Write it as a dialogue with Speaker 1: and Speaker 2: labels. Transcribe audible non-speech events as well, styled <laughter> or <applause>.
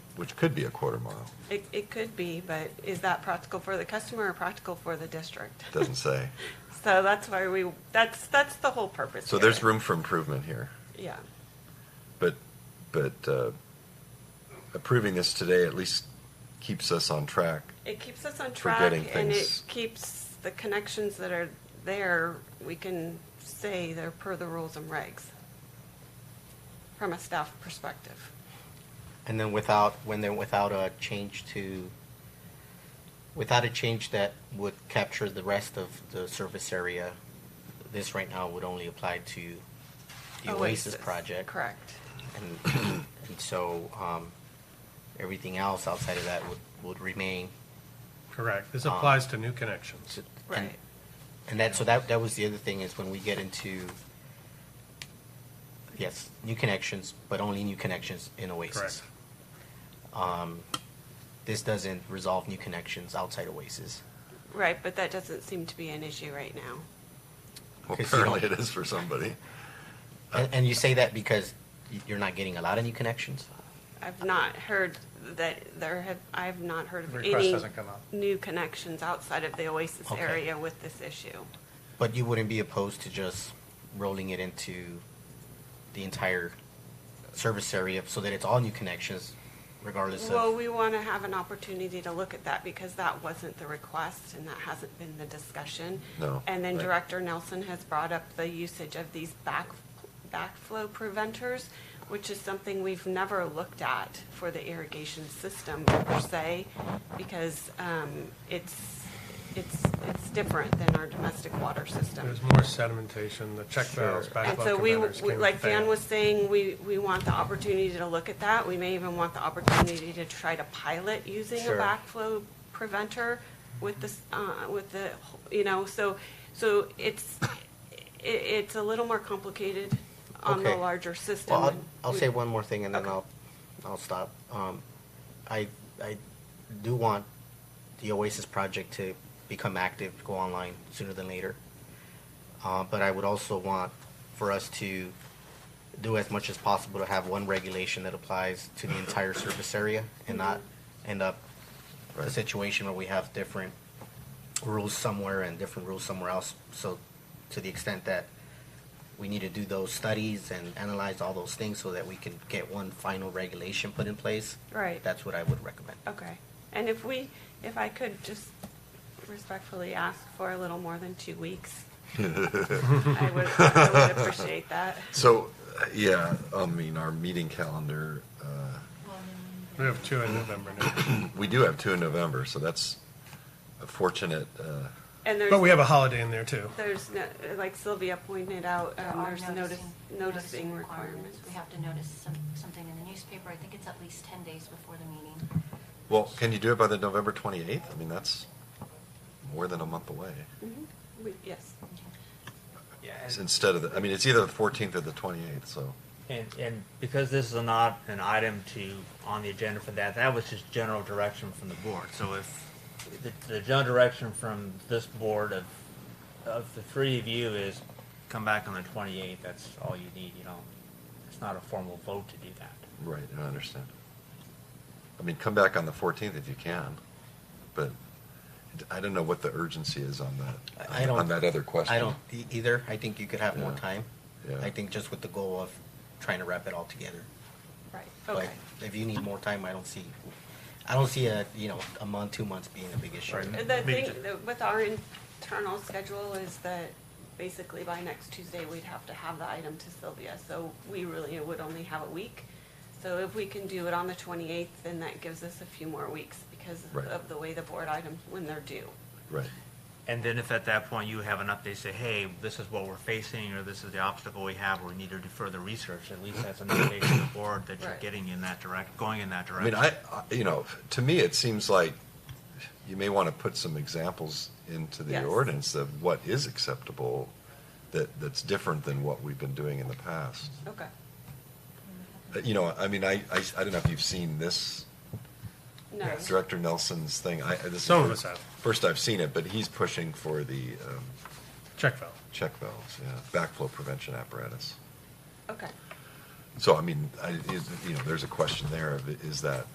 Speaker 1: which could be a quarter mile.
Speaker 2: It, it could be, but is that practical for the customer or practical for the district?
Speaker 1: Doesn't
Speaker 3: <laughs>
Speaker 1: say.
Speaker 2: <laughs> So that's why we, that's, that's the whole purpose
Speaker 1: So
Speaker 2: here.
Speaker 1: there's room for improvement here.
Speaker 2: Yeah,
Speaker 1: But, but uh, approving this today at least keeps us on track.
Speaker 2: it keeps us on
Speaker 1: For
Speaker 2: track
Speaker 1: getting
Speaker 2: and it
Speaker 1: things-
Speaker 2: keeps the connections that are there, we can say they're per the rules and regs from a staff perspective.
Speaker 3: And then without, when then without a change to, without a change that would capture the rest of the service area, this right now would only apply to the Oasis project.
Speaker 2: Correct.
Speaker 3: And, and so, um, everything else outside of that would, would remain.
Speaker 4: Correct. This
Speaker 3: Um,
Speaker 4: applies to new connections.
Speaker 3: So- and-
Speaker 2: Right.
Speaker 3: And that, so that, that was the other thing is when we get into, yes, new connections, but only new connections in Oasis.
Speaker 4: Correct.
Speaker 3: Um, This doesn't resolve new connections outside Oasis.
Speaker 2: Right, but that doesn't seem to be an issue right now.
Speaker 1: Well,
Speaker 3: Okay, so-
Speaker 1: apparently it is for
Speaker 3: <laughs>
Speaker 1: somebody.
Speaker 3: And, and you say that because y- you're not getting a lot of new connections?
Speaker 2: I've not heard that there have, I have not heard of
Speaker 4: Request
Speaker 2: any
Speaker 4: hasn't come up.
Speaker 2: new connections outside of the Oasis
Speaker 3: Okay.
Speaker 2: area with this issue.
Speaker 3: But you wouldn't be opposed to just rolling it into the entire service area so that it's all new connections regardless of?
Speaker 2: Well, we want to have an opportunity to look at that because that wasn't the request and that hasn't been the discussion.
Speaker 1: No,
Speaker 2: And then
Speaker 1: right.
Speaker 2: Director Nelson has brought up the usage of these back, backflow preventers, which is something we've never looked at for the irrigation system per se, because um, it's, it's, it's different than our domestic water system.
Speaker 4: There's more sedimentation, the check valves,
Speaker 1: Sure.
Speaker 2: And
Speaker 4: backflow
Speaker 2: so we,
Speaker 4: preventers
Speaker 2: we-
Speaker 4: can
Speaker 2: like Dan
Speaker 4: fail.
Speaker 2: was saying, we, we want the opportunity to look at that. We may even want the opportunity to try to pilot using a
Speaker 3: Sure.
Speaker 2: backflow preventer with this, uh, with the, you know, so, so it's, it, it's a little more complicated on the
Speaker 3: Okay.
Speaker 2: larger system.
Speaker 3: Well, I'll, I'll say one more thing and then
Speaker 2: Okay.
Speaker 3: I'll, I'll stop. Um, I, I do want the Oasis project to become active, go online sooner than later. Uh, but I would also want for us to do as much as possible to have one regulation that applies to the entire surface area and not end up a
Speaker 1: Right.
Speaker 3: situation where we have different rules somewhere and different rules somewhere else. So to the extent that we need to do those studies and analyze all those things so that we can get one final regulation put in place.
Speaker 2: Right.
Speaker 3: That's what I would recommend.
Speaker 2: Okay. And if we, if I could just respectfully ask for a little more than two weeks, I would, I would appreciate that.
Speaker 1: So, uh, yeah, I mean, our meeting calendar, uh,
Speaker 4: We have two in November now.
Speaker 2: <coughs>
Speaker 1: we do have two in November, so that's a fortunate, uh,
Speaker 2: And there's.
Speaker 4: But we have a holiday in there too.
Speaker 2: There's, no- like Sylvia pointed out,
Speaker 5: There
Speaker 2: um,
Speaker 5: are
Speaker 2: there's notice, noticing requirements.
Speaker 5: We have to notice some, something in the newspaper. I think it's at least ten days before the meeting.
Speaker 1: well, can you do it by the November 28th? I mean, that's more than a month away.
Speaker 2: Mhm. We- Yes,
Speaker 6: Yeah,
Speaker 1: It's
Speaker 6: and-
Speaker 1: Instead of, the I mean, it's either the 14th or the 28th, so.
Speaker 6: and, and because this is not an item to, on the agenda for that, that was just general direction from the board. So if, the, the general direction from this board of, of the three of you is come back on the 28th, that's all you need, you know? It's not a formal vote to do that.
Speaker 1: Right, I understand. I mean, come back on the 14th if you can, but I don't know what the urgency is on that,
Speaker 3: I I don't.
Speaker 1: on that other question.
Speaker 3: I don't e- either. I think you could have more
Speaker 1: Yeah.
Speaker 3: time.
Speaker 1: Yeah.
Speaker 3: I think just with the goal of trying to wrap it all together.
Speaker 2: right,
Speaker 3: But
Speaker 2: okay.
Speaker 3: if you need more time, I don't see, I don't see a, you know, a month, two months being a big issue.
Speaker 6: Right.
Speaker 2: The
Speaker 6: Maybe
Speaker 2: thing that- with our internal schedule is that basically by next Tuesday, we'd have to have the item to Sylvia. So we really would only have a week. So if we can do it on the 28th, then that gives us a few more weeks because
Speaker 1: Right.
Speaker 2: of the way the board items, when they're due.
Speaker 1: Right,
Speaker 6: And then if at that point you have an update, say, hey, this is what we're facing, or this is the obstacle we have, or we need to do further research, at least that's an indication to the board that you're
Speaker 2: Right.
Speaker 6: getting in that direct, going in that
Speaker 1: I mean,
Speaker 6: direction.
Speaker 1: I, I- you know, to me, it seems like you may want to put some examples into the
Speaker 2: Yes.
Speaker 1: ordinance of what is acceptable that, that's different than what we've been doing in the past.
Speaker 2: Okay.
Speaker 1: Uh, You know, I mean, I, I, I don't know if you've seen this
Speaker 2: No.
Speaker 1: Director Nelson's thing. I, I- this is
Speaker 4: Some of
Speaker 1: first-
Speaker 4: us have.
Speaker 1: First I've seen it, but he's pushing for the um,
Speaker 4: Check valve.
Speaker 1: check valves, yeah, backflow prevention apparatus.
Speaker 2: Okay.
Speaker 1: So, I mean, I, is, you know, there's a question there of, is that